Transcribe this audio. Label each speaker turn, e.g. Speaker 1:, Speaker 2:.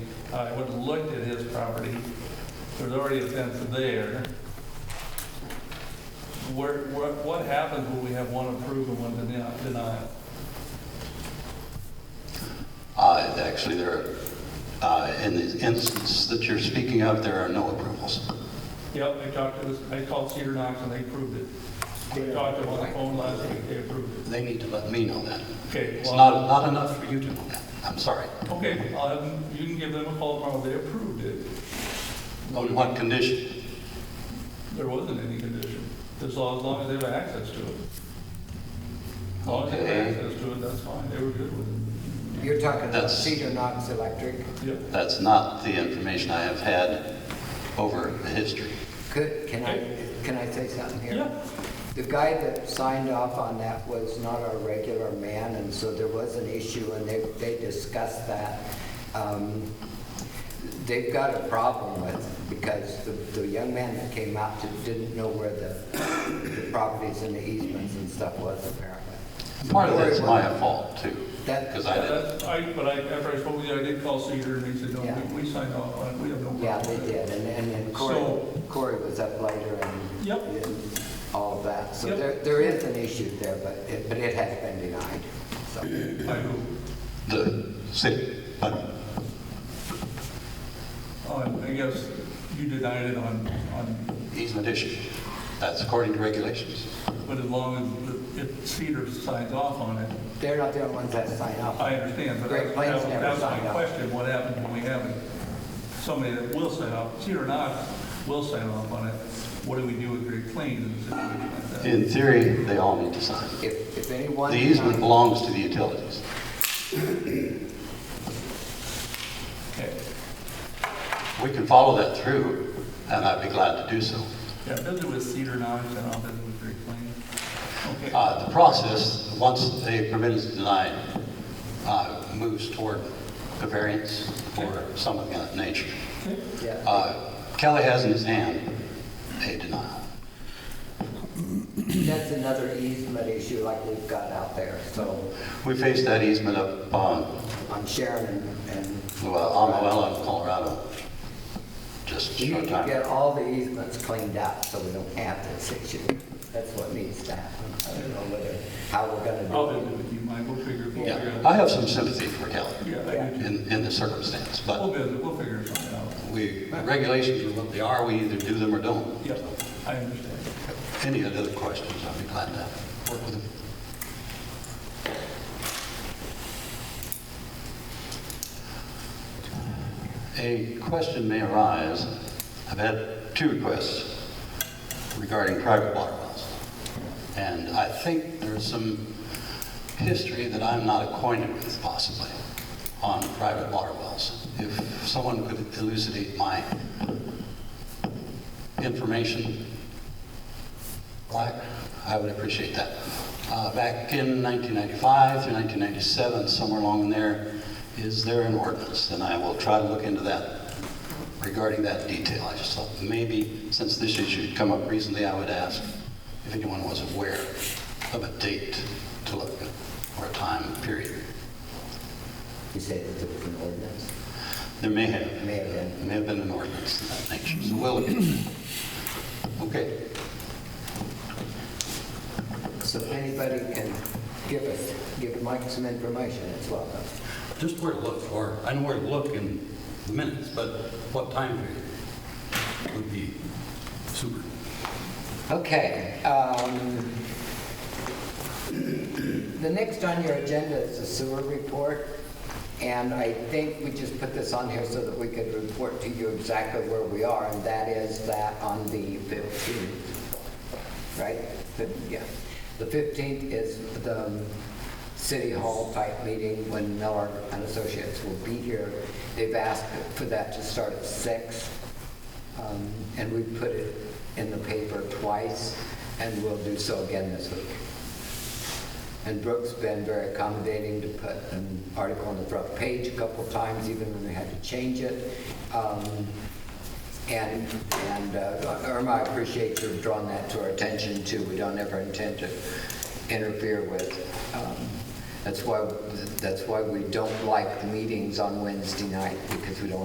Speaker 1: I went and looked at his property, there's already a fence there. Where, what, what happens when we have one approved and one deni- denied?
Speaker 2: Uh, Actually, there, uh, in the instance that you're speaking of, there are no approvals.
Speaker 1: Yep, I talked to this, I called Cedar Knox and they approved it. I talked to them on the phone last week, they approved it.
Speaker 2: They need to let me know that.
Speaker 1: Okay,
Speaker 2: It's not,
Speaker 1: well,
Speaker 2: not enough for you to know that. I'm sorry.
Speaker 1: okay, I'll have them- you can give them a call tomorrow, they approved it.
Speaker 2: On what condition?
Speaker 1: There wasn't any condition, as long, as long as they have access to it. As long as they have
Speaker 2: Okay.
Speaker 1: access to it, that's fine, they were good with
Speaker 3: You're talking about
Speaker 2: That's-
Speaker 3: Cedar Knox Electric.
Speaker 1: it. Yep.
Speaker 2: That's not the information I have had over the history.
Speaker 3: Could, can I, can I say something here? The guy that signed off on that was not our regular man, and so there was an issue, and they, they discussed that. Um, They've got a problem with, because the, the young man that came out to- didn't know where the, the properties and the easements and stuff was apparently.
Speaker 2: Part of that's my fault too,
Speaker 3: That-
Speaker 2: because I
Speaker 1: Yeah,
Speaker 2: didn't.
Speaker 1: that's, I, but I, after I spoke with you, I did call Cedar and he said, no,
Speaker 3: Yeah.
Speaker 1: we, we signed off on it, we have no problem.
Speaker 3: Yeah, they did, and, and then Corey,
Speaker 1: So-
Speaker 3: Corey was up later and.
Speaker 1: Yep.
Speaker 3: and All of that, so
Speaker 1: Yep.
Speaker 3: there, there is an issue there, but it, but it has been denied, so.
Speaker 1: I do,
Speaker 2: The city, but
Speaker 1: on, I guess you denied it on, on,
Speaker 2: easement issue, that's according to regulations.
Speaker 1: but as long as, the- if Cedar signs off on it,
Speaker 3: They're not the only ones that sign up.
Speaker 1: I understand, but
Speaker 3: Great
Speaker 1: that
Speaker 3: Plains never
Speaker 1: that was my
Speaker 3: signed off.
Speaker 1: question, what happens when we have somebody that will sign off, Cedar Knox will sign off on it, what do we do with Great Plains in a situation like that?
Speaker 2: In theory, they all need to sign.
Speaker 3: If, if anyone.
Speaker 2: The easement
Speaker 3: denies-
Speaker 2: belongs to the utilities.
Speaker 1: Okay,
Speaker 2: We can follow that through, and I'd be glad to do so.
Speaker 1: yeah, visit with Cedar Knox and I'll visit with Great Plains. Okay.
Speaker 2: Uh, The process, once a permit is denied, uh, moves toward a variance or some of that nature.
Speaker 1: Okay.
Speaker 3: Yeah.
Speaker 2: Uh, Kelly has in his hand a denial.
Speaker 3: That's another easement issue like we've got out there, so
Speaker 2: We faced that easement up on,
Speaker 3: on Sharon and- and.
Speaker 2: well, on Llewellyn, Colorado, just a
Speaker 3: We
Speaker 2: short
Speaker 3: need to
Speaker 2: time.
Speaker 3: get all the easements cleaned up so we don't have this issue. That's what needs to happen. I don't know whether, how we're gonna do it.
Speaker 1: I'll visit with you, Mike, we'll figure, we'll
Speaker 2: Yeah,
Speaker 1: figure
Speaker 2: I
Speaker 1: out.
Speaker 2: have some sympathy for Kelly
Speaker 1: Yeah, I do too.
Speaker 2: in, in the circumstance,
Speaker 1: We'll
Speaker 2: but
Speaker 1: visit, we'll figure er? something out.
Speaker 2: we, regulations are what they are, we either do them or don't.
Speaker 1: Yeah, I understand.
Speaker 2: Any other questions, I'd be glad to work with them. A question may arise, I've had two requests regarding private water wells. And I think there's some history that I'm not acquainted with possibly on private water wells. If someone could elucidate my information, Black, I would appreciate that. Uh, Back in 1995 through 1997, somewhere along in there, is there an ordinance? And I will try to look into that regarding that detail. I just thought maybe, since this issue had come up recently, I would ask if anyone was aware of a date to look at or a time period.
Speaker 3: You said that there was an ordinance?
Speaker 2: There may have.
Speaker 3: May have been.
Speaker 2: May have been an ordinance of that nature, so we'll look into that. Okay.
Speaker 3: So if anybody can give us, give Mike some information, it's welcome.
Speaker 2: Just where to look, or I know where to look in the minutes, but what time period would be super.
Speaker 3: Okay. um, The next on your agenda is the sewer report, and I think we just put this on here so that we could report to you exactly where we are, and that is that on the 15th, right? Fif- Yeah. The 15th is the city hall type meeting when Miller and Associates will be here. They've asked for that to start at 6. Um, And we put it in the paper twice, and we'll do so again this week. And Brooke's been very accommodating to put an article on the front page a couple times, even when we had to change it. Um, And, and uh, Irma, I appreciate you drawing that to our attention too. We don't ever intend to interfere with. um, That's why, that's why we don't like meetings on Wednesday night, because we don't